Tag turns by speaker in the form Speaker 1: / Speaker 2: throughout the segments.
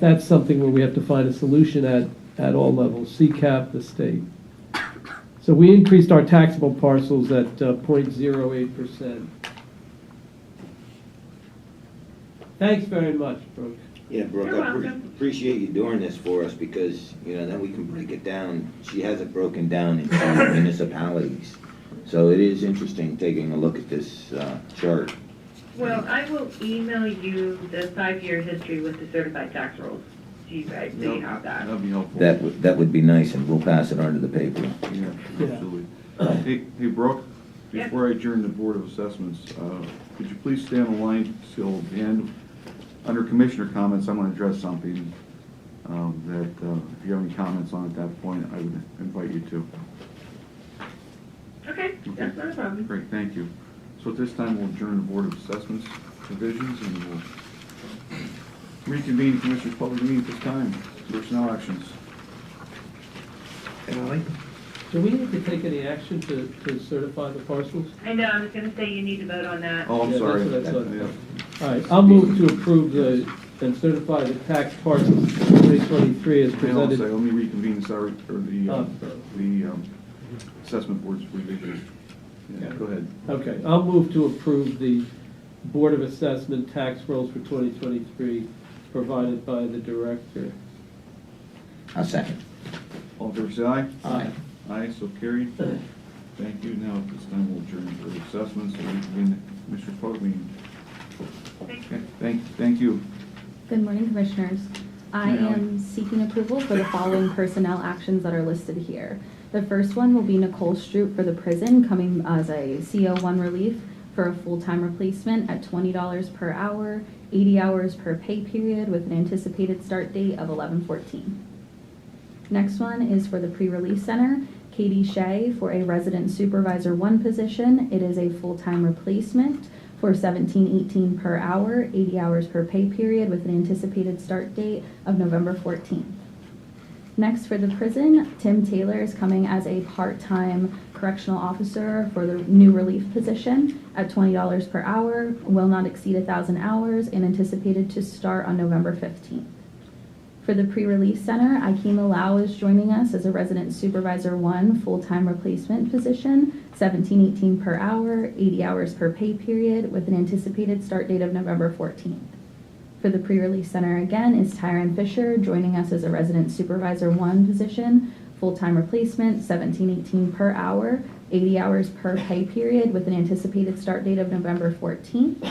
Speaker 1: that's something where we have to find a solution at, at all levels, CCAP, the state. So we increased our taxable parcels at uh, 0.08%. Thanks very much, Brooke.
Speaker 2: Yeah, Brooke,
Speaker 3: You're
Speaker 2: I pre-
Speaker 3: welcome.
Speaker 2: appreciate you doing this for us because, you know, then we can break it down. She has it broken down in different municipalities. So it is interesting taking a look at this uh, chart.
Speaker 3: Well, I will email you the five-year history with the certified tax rolls, so you guys so you have that.
Speaker 4: That'd be helpful.
Speaker 2: That would, that would be nice and we'll pass it on to the paper.
Speaker 4: Yeah, absolutely. Hey, hey, Brooke,
Speaker 3: Yeah.
Speaker 4: before I adjourn the Board of Assessments, uh, could you please stay on the line till the end? Under Commissioner comments, I'm gonna address something, um, that, uh, if you have any comments on at that point, I would invite you to.
Speaker 3: Okay, that's not a problem.
Speaker 4: Great, thank you. So at this time, we'll adjourn the Board of Assessments provisions and we'll reconvene Commissioners' public meeting at this time. Personnel actions.
Speaker 1: Do we need to take any action to, to certify the parcels?
Speaker 3: I know, I was gonna say you need to vote on that.
Speaker 4: Oh,
Speaker 1: Yeah,
Speaker 4: I'm
Speaker 1: that's
Speaker 4: sorry.
Speaker 1: what I thought.
Speaker 4: Yeah.
Speaker 1: All right, I'll move to approve the, and certify the tax parcels 2023 as
Speaker 4: Hang on a
Speaker 1: presented.
Speaker 4: second, let me reconvene the salary, or the, uh,
Speaker 1: Oh.
Speaker 4: the um, assessment board's revision. Yeah, go ahead.
Speaker 1: Okay, I'll move to approve the Board of Assessment tax rolls for 2023 provided by the director.
Speaker 2: I'll second.
Speaker 4: All in favor, say aye.
Speaker 1: Aye.
Speaker 4: Aye, so carried. Thank you. Now, at this time, we'll adjourn for the assessments and reconvene the Commissioner Fogg meeting.
Speaker 3: Thank
Speaker 4: Okay, Thank, thank you.
Speaker 5: Good morning, Commissioners. I
Speaker 4: Hi, Ally.
Speaker 5: am seeking approval for the following personnel actions that are listed here. The first one will be Nicole Stroop for the prison, coming as a CO1 relief for a full-time replacement at $20 per hour, 80 hours per pay period, with an anticipated start date of 11/14. Next one is for the pre-release center, Katie Shea for a resident supervisor one position. It is a full-time replacement for seventeen eighteen per hour, eighty hours per pay period with an anticipated start date of November fourteenth. Next, for the prison, Tim Taylor is coming as a part-time correctional officer for the new relief position at twenty dollars per hour, will not exceed thousand hours, and anticipated to start on November fifteenth. For the pre-release center, Akima Lau is joining us as a resident supervisor one, full-time replacement position, seventeen eighteen per hour, eighty hours per pay period, with an anticipated start date of November fourteenth. For the pre-release center again is Tyron Fisher, joining us as a resident supervisor one position, full-time replacement, seventeen eighteen per hour, eighty hours per pay period, with an anticipated start date of November fourteenth.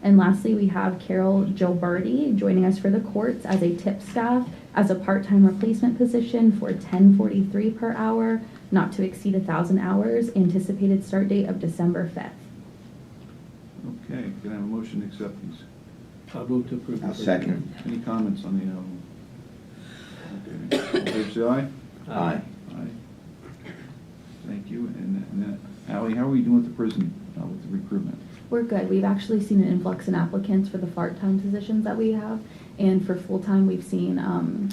Speaker 5: And lastly, we have Carol Gilberti joining us for the courts as a tip staff as a part-time replacement position for ten forty-three per hour, not to exceed thousand hours, anticipated start date of December fifth.
Speaker 4: Okay, can I have a motion to accept these?
Speaker 1: I'll move to approve. the
Speaker 2: I'll
Speaker 1: first.
Speaker 2: second.
Speaker 4: Any comments on the, um, okay, all in favor, say aye.
Speaker 2: Aye.
Speaker 4: Aye. Thank you. And, and uh, Ally, how are we doing with the prison, uh, with the recruitment?
Speaker 5: We're good. We've actually seen an influx in applicants for the part-time positions that we have. And for full-time, we've seen, um,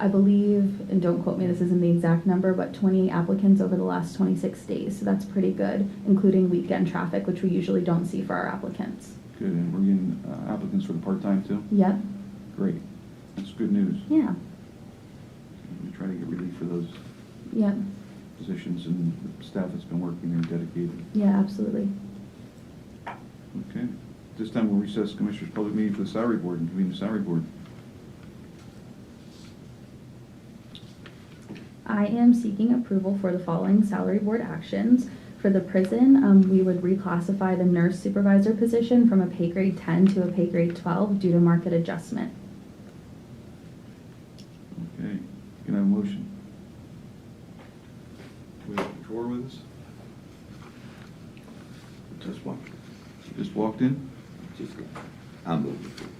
Speaker 5: I believe, and don't quote me, this isn't the exact number, but twenty applicants over the last twenty-six days. So that's pretty good, including weekend traffic, which we usually don't see for our applicants.
Speaker 4: Good, and we're getting uh, applicants for the part-time too?
Speaker 5: Yep,
Speaker 4: Great, that's good news.
Speaker 5: yeah,
Speaker 4: We try to get relief for those
Speaker 5: yep,
Speaker 4: positions and the staff that's been working there dedicated.
Speaker 5: yeah, absolutely.
Speaker 4: Okay, this time we'll recess Commissioners' Public Meeting for the Salary Board and convene the Salary Board.
Speaker 5: I am seeking approval for the following salary board actions. For the prison, um, we would reclassify the nurse supervisor position from a pay grade ten to a pay grade twelve due to market adjustment.
Speaker 4: Okay, can I have a motion? We have drawer with us?
Speaker 2: Just one.
Speaker 4: Just walked in?
Speaker 2: Just go. I'll move.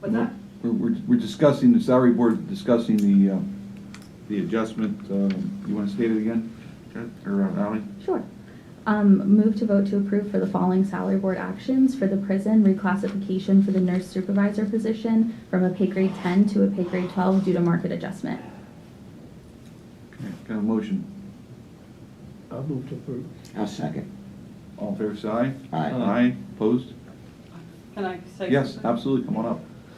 Speaker 3: What's that?
Speaker 4: We're, we're we're discussing, the Salary Board discussing the, uh, the adjustment, um, you want to state it again? Ted, Or uh, Ally?
Speaker 5: Sure. Um, move to vote to approve for the following salary board actions for the prison reclassification for the nurse supervisor position from a pay grade ten to a pay grade twelve due to market adjustment.
Speaker 4: Okay, Can I have a motion?
Speaker 1: I'll move to approve.
Speaker 2: I'll second.
Speaker 4: All in favor, say aye.
Speaker 2: Aye.
Speaker 4: Aye, opposed?
Speaker 6: Can I say?
Speaker 4: Yes,
Speaker 6: something?
Speaker 4: absolutely, come on up.